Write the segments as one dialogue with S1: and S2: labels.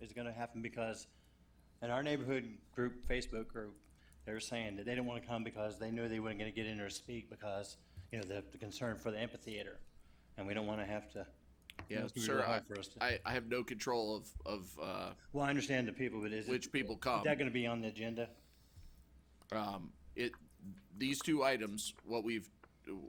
S1: is gonna happen because in our neighborhood group, Facebook group, they were saying that they didn't wanna come because they knew they weren't gonna get in or speak because, you know, the, the concern for the amphitheater. And we don't wanna have to, you know,
S2: Yeah,
S1: it's gonna be
S2: sir.
S1: real
S2: I,
S1: hard for us to-
S2: I, I have no control of of uh,
S1: well, I understand the people, but is it-
S2: which um, people
S1: Is
S2: come.
S1: that gonna be on the agenda?
S2: Um, it these two items. What we've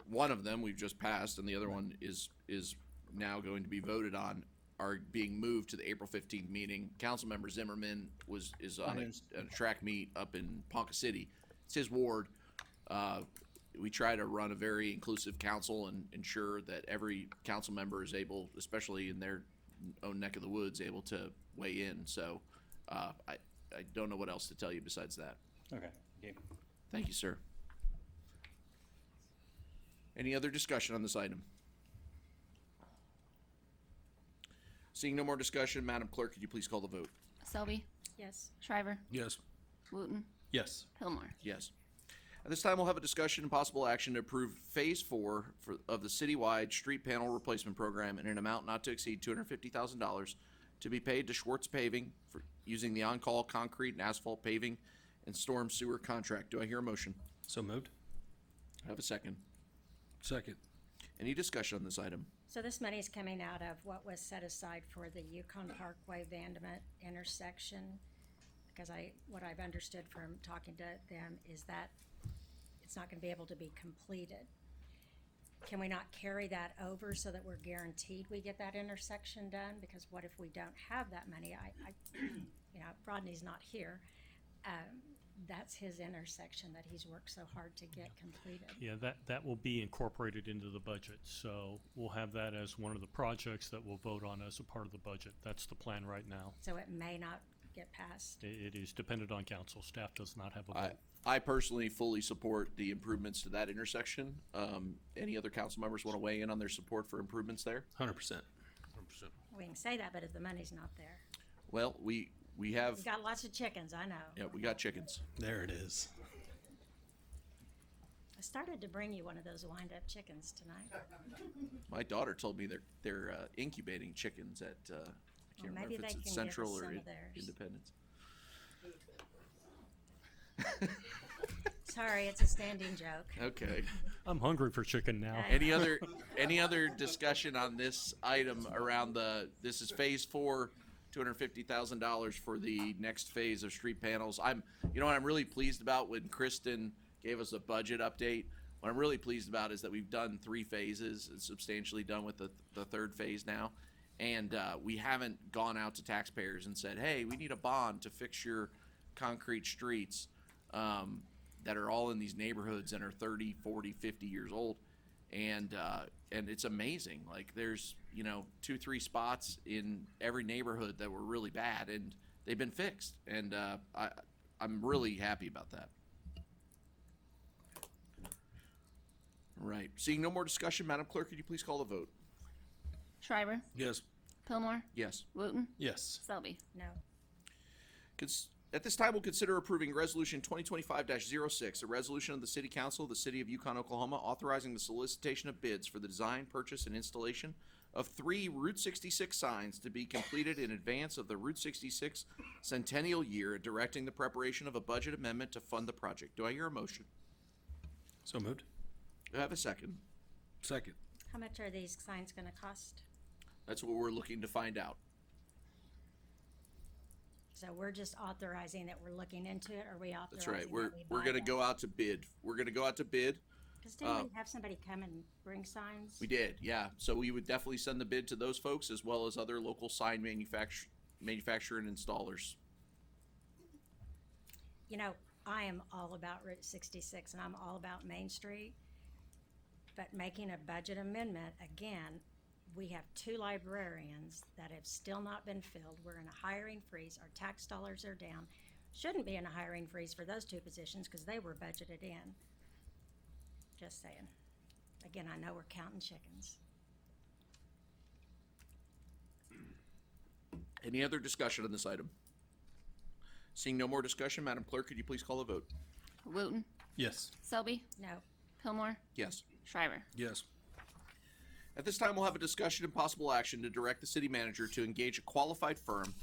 S2: one of them we've just passed, and the other one is is now going to be voted on. Are being moved to the April fifteenth meeting. Councilmember Zimmerman was is on a,
S1: Finance.
S2: a track meet up in Ponca City. It's his ward. Uh, we try to run a very inclusive council and ensure that every council member is able, especially in their own neck of the woods, able to weigh in. So uh, I I don't know what else to tell you besides that.
S1: Okay, okay.
S2: Thank you, sir. Any other discussion on this item? Seeing no more discussion, Madam Clerk, could you please call the vote?
S3: Selby,
S4: Yes.
S3: Shriver,
S5: Yes.
S3: Wooten,
S5: Yes.
S3: Pillmore.
S2: Yes. At this time, we'll have a discussion and possible action to approve Phase Four for, of the citywide street panel replacement program in an amount not to exceed two hundred fifty thousand dollars to be paid to Schwartz Paving for using the on-call concrete and asphalt paving and storm sewer contract. Do I hear a motion?
S5: So moved.
S2: I have a second.
S5: Second.
S2: Any discussion on this item?
S4: So this money is coming out of what was set aside for the Yukon Parkway Vandement intersection? Because I, what I've understood from talking to them is that it's not gonna be able to be completed. Can we not carry that over so that we're guaranteed we get that intersection done? Because what if we don't have that money? I, I, you know, Rodney's not here. Um, that's his intersection that he's worked so hard to get completed.
S6: Yeah, that, that will be incorporated into the budget, so we'll have that as one of the projects that we'll vote on as a part of the budget. That's the plan right now.
S4: So it may not get passed.
S6: I- it is dependent on council. Staff does not have a
S2: I,
S6: vote.
S2: I personally fully support the improvements to that intersection. Um, any other council members want to weigh in on their support for improvements there?
S5: Hundred percent.
S4: We can say that, but if the money's not there.
S2: Well, we, we have,
S4: We've got lots of chickens, I know.
S2: yeah, we got chickens.
S5: There it is.
S4: I started to bring you one of those wind-up chickens tonight.
S2: My daughter told me they're, they're uh, incubating chickens at, uh, I can't
S4: Well,
S2: remember
S4: maybe
S2: if
S4: they
S2: it's
S4: can
S2: at
S4: give us
S2: Central or
S4: some
S2: in-
S4: of theirs.
S2: Independence.
S4: Sorry, it's a standing joke.
S2: Okay.
S6: I'm hungry for chicken now.
S4: I-
S2: Any other, any other discussion on this item around the, this is phase four, two hundred fifty thousand dollars for the next phase of street panels. I'm, you know what I'm really pleased about when Kristen gave us a budget update? What I'm really pleased about is that we've done three phases, and substantially done with the, the third phase now. And, uh, we haven't gone out to taxpayers and said, hey, we need a bond to fix your concrete streets, um, that are all in these neighborhoods and are 30, 40, 50 years old and uh, and it's amazing. Like there's you know two three spots in every neighborhood that were really bad, and they've been fixed. And uh, I I'm really happy about that. Right. Seeing no more discussion, Madam Clerk, could you please call the vote?
S3: Shriver,
S5: Yes.
S3: Pillmore,
S2: Yes.
S3: Wooten,
S5: Yes.
S3: Selby.
S4: No,
S2: Cons- At this time, we'll consider approving Resolution 2025-06, a resolution of the City Council of the City of Yukon, Oklahoma, authorizing the solicitation of bids for the design, purchase, and installation of three Route 66 signs to be completed in advance of the Route 66 centennial year, and directing the preparation of a budget amendment to fund the project. Do I hear a motion?
S5: So moved.
S2: Do I have a second?
S5: Second.
S4: how much are these signs gonna cost?
S2: That's what we're looking to find out.
S4: So we're just authorizing that we're looking into it, or we authorizing
S2: That's right.
S4: that
S2: We're,
S4: we
S2: we're
S4: buy
S2: gonna
S4: them?
S2: go out to bid. We're gonna go out to bid.
S4: Cause didn't
S2: uh,
S4: we have somebody come and bring signs?
S2: We did, yeah. So we would definitely send the bid to those folks as well as other local sign manufacturer, manufacturer and installers.
S4: You know, I am all about Route sixty-six, and I'm all about Main Street. But making a budget amendment, again, we have two librarians that have still not been filled. We're in a hiring freeze. Our tax dollars are down. Shouldn't be in a hiring freeze for those two positions because they were budgeted in. Just saying. Again, I know we're counting chickens.
S2: Any other discussion on this item? Seeing no more discussion, Madam Clerk, could you please call the vote?
S3: Wooten,
S5: Yes.
S3: Selby,
S4: No,
S3: Pillmore,
S2: Yes.
S3: Shriver.
S5: Yes.
S2: At this time, we'll have a discussion and possible action to direct the city manager to engage a qualified firm